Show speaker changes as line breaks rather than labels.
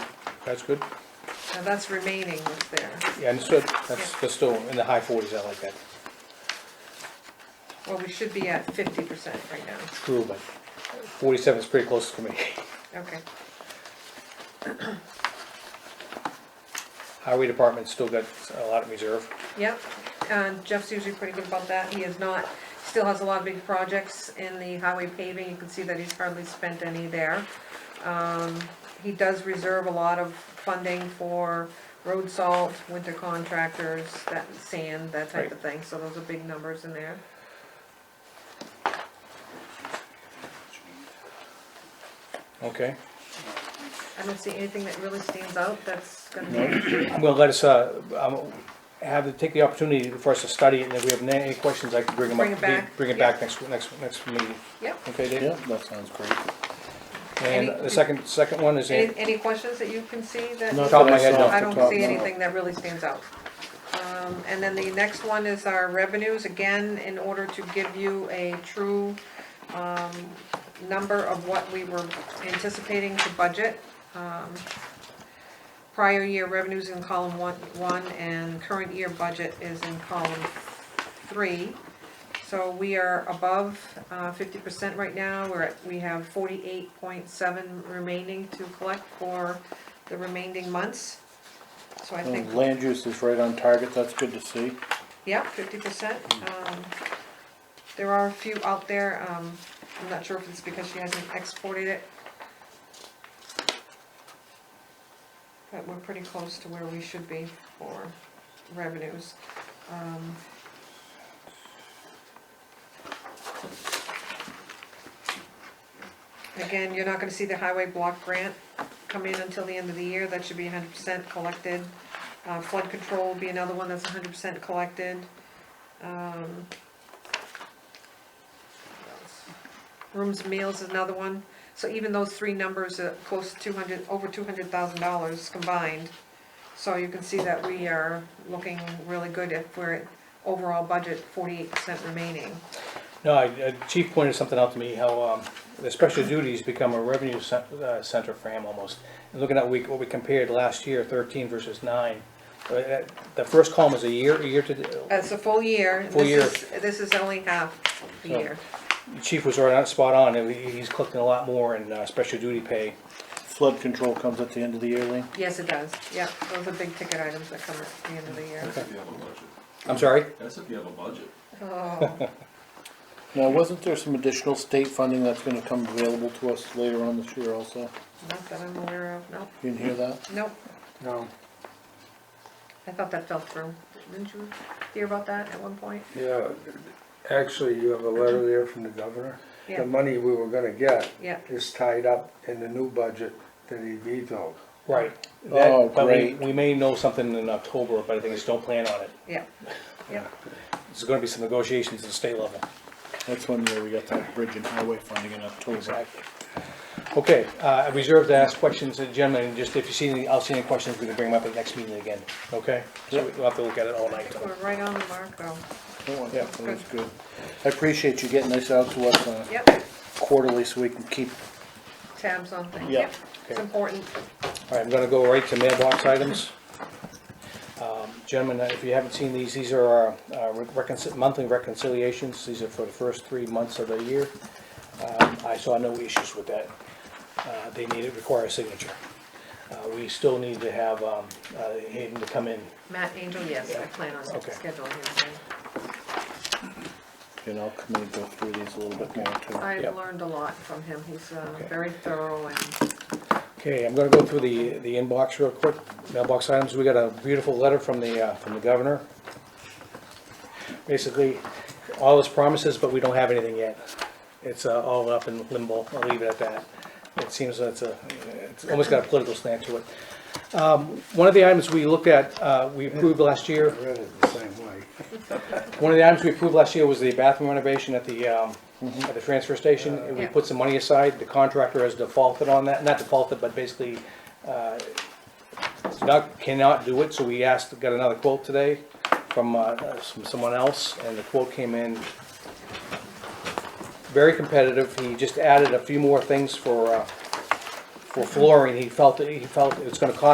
that's good.
Now, that's remaining what's there.
Yeah, understood. That's, that's still in the high forties, I like that.
Well, we should be at fifty percent right now.
True, but forty-seven is pretty close to me.
Okay,
Highway department's still got a lot in reserve.
yep. And Jeff's usually pretty good about that. He is not, still has a lot of big projects in the highway paving. You can see that he's hardly spent any there. Um, he does reserve a lot of funding for road salt, winter contractors, that, sand, that type of thing. So those are big numbers in there.
Okay.
I don't see anything that really stands out that's gonna be,
Well, let us, uh, um, have, to take the opportunity for us to study it, and if we have any questions, I can bring them up.
Bring it back,
Bring it
yeah.
back next, next, next meeting.
yep.
Okay,
Yeah,
Dave?
that sounds great.
And
Any-
the second, second one is, in-
Any, any questions that you can see that?
Not
Top of
that
my head,
saw
no.
off
I
the
don't
top,
see
no.
anything that really stands out. Um, and then the next one is our revenues, again, in order to give you a true, um, number of what we were anticipating to budget. um, Prior year revenues in column one, one, and current year budget is in column three. So we are above uh, fifty percent right now, we're at, we have forty-eight point seven remaining to collect for the remaining months. So I think,
And land use is right on target, that's good to see.
yeah, fifty percent. um, There are a few out there, um, I'm not sure if it's because she hasn't exported it. But we're pretty close to where we should be for revenues. Um, Again, you're not gonna see the highway block grant come in until the end of the year, that should be hundred percent collected. Uh, flood control will be another one that's hundred percent collected. Um, what else? Rooms and meals is another one, so even those three numbers are close to two hundred, over two hundred thousand dollars combined. So you can see that we are looking really good if we're at overall budget forty-eight percent remaining.
no, I- uh, Chief pointed something out to me, how, um, the special duties become a revenue cen- uh, center for him almost. And Looking at we, what we compared last year, thirteen versus nine, uh, that- the first column is a year, a year to, uh,
That's a full year.
Full year.
This is, this is only half the
So-
year.
Chief was right on, spot on, and he- he's collecting a lot more in, uh, special duty pay.
Flood control comes at the end of the year, Lee?
Yes, it does, yeah, those are big ticket items that come at the end of the year.
That's if you have a budget.
I'm sorry?
That's if you have a budget.
Oh,
Now, wasn't there some additional state funding that's gonna come available to us later on this year also?
not that I'm aware of, no,
You didn't hear that?
nope,
No.
I thought that fell through. Didn't you hear about that at one point?
Yeah, actually, you have a letter there from the governor.
Yeah.
The money we were gonna get
Yeah,
is tied up in the new budget that he vetoed.
Right.
Oh,
That- but we-
great.
We may know something in October, but I think just don't plan on it.
yeah, yeah,
There's gonna be some negotiations at the state level.
That's one year we got that bridge and highway funding in October.
Okay, uh, I reserve to ask questions, uh, gentlemen, and just if you see any, I'll see any questions, we can bring them up at the next meeting again, okay? So we'll have to look at it all
I
night.
think we're right on the mark though,
Oh,
Yeah.
That was good. I appreciate you getting this out to us uh,
yep,
quarterly so we can keep,
tabs on things,
Yeah.
yep, it's
Okay.
important.
All right, I'm gonna go right to mailbox items. Um, Gentlemen, uh, if you haven't seen these, these are our uh, reconci- monthly reconciliations. These are for the first three months of the year. Um, I saw no issues with that. Uh, They need, it require a signature. Uh, We still need to have um, uh, Hayden to come in.
Matt Angel, yes, I plan on
Okay.
scheduling him again.
you know, come and go through these a little bit more too.
I
Yep.
learned a lot from him, he's uh,
Okay.
very thorough and,
Okay, I'm gonna go through the, the inbox real quick, mailbox items. We got a beautiful letter from the, uh, from the governor. Basically, all his promises, but we don't have anything yet. It's uh, all up in limbo, I'll leave it at that. It seems that's a, it's almost got a political slant to it. Um, One of the items we looked at, uh, we approved last year,
I read it the same way.
one of the items we approved last year was the bathroom renovation at the, um, at the transfer station. And we
Yeah.
put some money aside. The contractor has defaulted on that, not defaulted, but basically, uh, not- cannot do it, so we asked, got another quote today from, uh, from someone else, and the quote came in very competitive. He just added a few more things for, uh, for flooring. He felt, that- he felt it's gonna cost